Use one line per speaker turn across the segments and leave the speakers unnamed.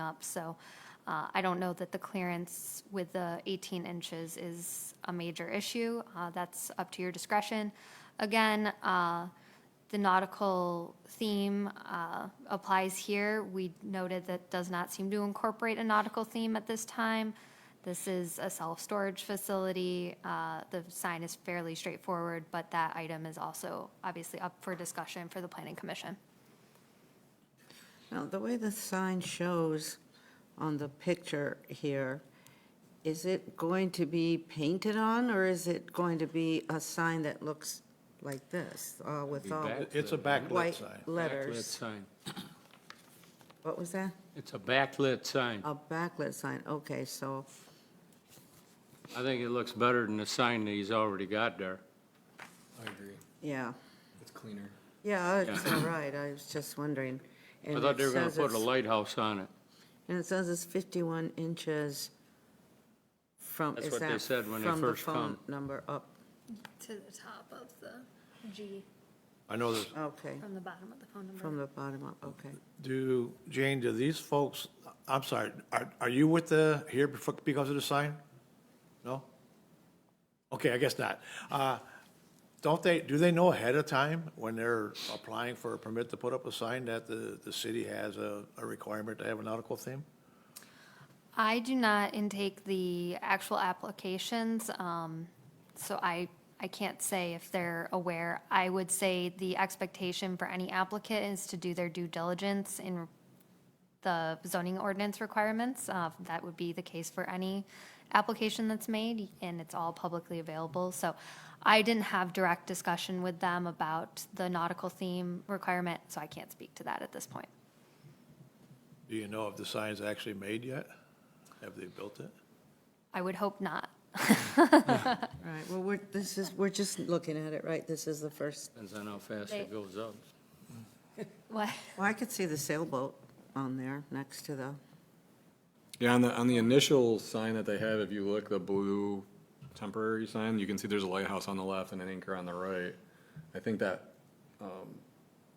up. So uh, I don't know that the clearance with the 18 inches is a major issue. Uh, That's up to your discretion. Again, uh, the nautical theme uh, applies here. We noted that does not seem to incorporate a nautical theme at this time. This is a self-storage facility. Uh, The sign is fairly straightforward, but that item is also obviously up for discussion for the planning commission.
Now, the way the sign shows on the picture here, is it going to be painted on, or is it going to be a sign that looks like this, uh, with all
back-
It's a backlit
white
sign.
Backlit
letters?
sign.
What was that?
It's a backlit sign.
A backlit sign, okay, so,
I think it looks better than the sign that he's already got there.
I agree.
yeah,
It's cleaner.
yeah, it's all right, I was just wondering.
I
And
thought they
it
were gonna
says
put a
it's-
lighthouse on it.
And it says it's 51 inches from,
That's
is
what they
that
said when they
from the
first
phone
come.
number up?
To the top of the G
I know this,
Okay,
from the bottom of the phone
from the bottom up, okay.
do, Jane, do these folks, I'm sorry, are, are you with the, here before- because of the sign? No? Okay, I guess not. Uh, Don't they, do they know ahead of time when they're applying for a permit to put up a sign that the, the city has a, a requirement to have a nautical theme?
I do not intake the actual applications, um, so I, I can't say if they're aware. I would say the expectation for any applicant is to do their due diligence in the zoning ordinance requirements. Uh, That would be the case for any application that's made, and it's all publicly available. So I didn't have direct discussion with them about the nautical theme requirement, so I can't speak to that at this point.
Do you know if the sign's actually made yet? Have they built it?
I would hope not.
All right, well, we're, this is, we're just looking at it, right? This is the first,
Depends on how fast
They-
it goes up.
What?
well, I could see the sailboat on there next to the,
Yeah, on the, on the initial sign that they have, if you look, the blue temporary sign, you can see there's a lighthouse on the left and an anchor on the right. I think that, um,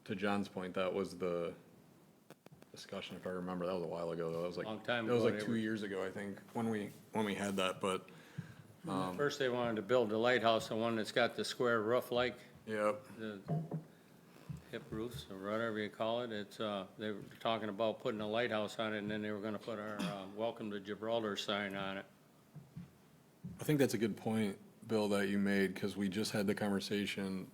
to John's point, that was the discussion, if I remember, that was a while ago, though, that was like.
Long time
That was
ago,
like
they
two
were-
years ago, I think, when we, when we had that, but,
First, they wanted to build a lighthouse, the one that's got the square roof like
yep.
the hip roofs or whatever you call it. It's, uh, they were talking about putting a lighthouse on it and then they were gonna put our, uh, welcome to Gibraltar sign on it.
I think that's a good point, Bill, that you made, because we just had the conversation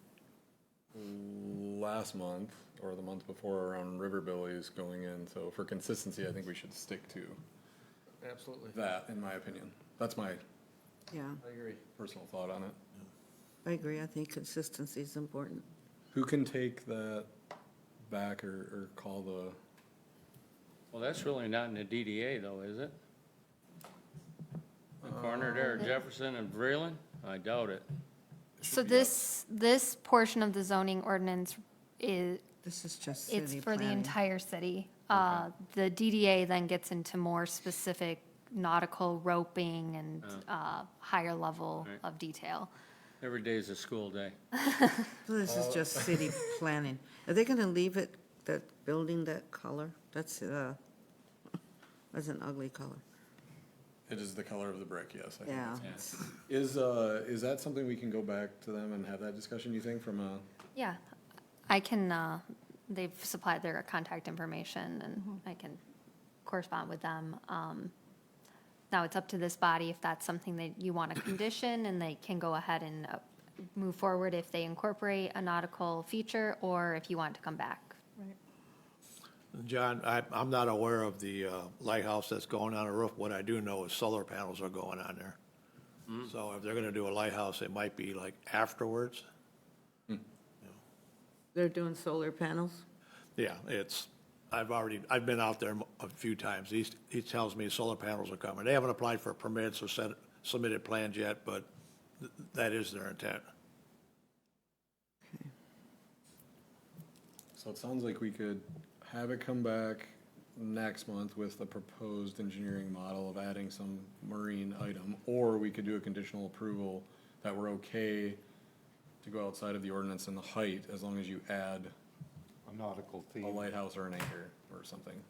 last month or the month before around riverbillies going in. So for consistency, I think we should stick to
Absolutely,
that, in my opinion. That's my
yeah,
I agree.
personal thought on it.
I agree, I think consistency is important.
Who can take that back or, or call the?
Well, that's really not in the DDA though, is it? The corner there,
Um.
Jefferson and Breland? I doubt it.
So this, this portion of the zoning ordinance is,
This is just city
it's
planning.
for the entire city. Uh, The DDA then gets into more specific nautical roping and
Oh.
uh, higher level
Right.
of detail.
Every day is a school day.
So This is just city planning. Are they gonna leave it, that building that color? That's, uh, that's an ugly color.
It is the color of the brick, yes. I think
Yeah.
that's- Is, uh, is that something we can go back to them and have that discussion, you think, from a?
Yeah, I can, uh, they've supplied their contact information, and I can correspond with them. Um, Now, it's up to this body if that's something that you want to condition, and they can go ahead and uh, move forward if they incorporate a nautical feature, or if you want to come back.
John, I, I'm not aware of the uh, lighthouse that's going on the roof. What I do know is solar panels are going on there. So if they're gonna do a lighthouse, it might be like afterwards.
They're doing solar panels?
Yeah, it's, I've already, I've been out there a few times. He, he tells me solar panels are coming. They haven't applied for permits or sent, submitted plans yet, but th- that is their intent.
So it sounds like we could have it come back next month with the proposed engineering model of adding some marine item, or we could do a conditional approval that we're okay to go outside of the ordinance and the height, as long as you add
a nautical
a
theme.
lighthouse or an anchor or something.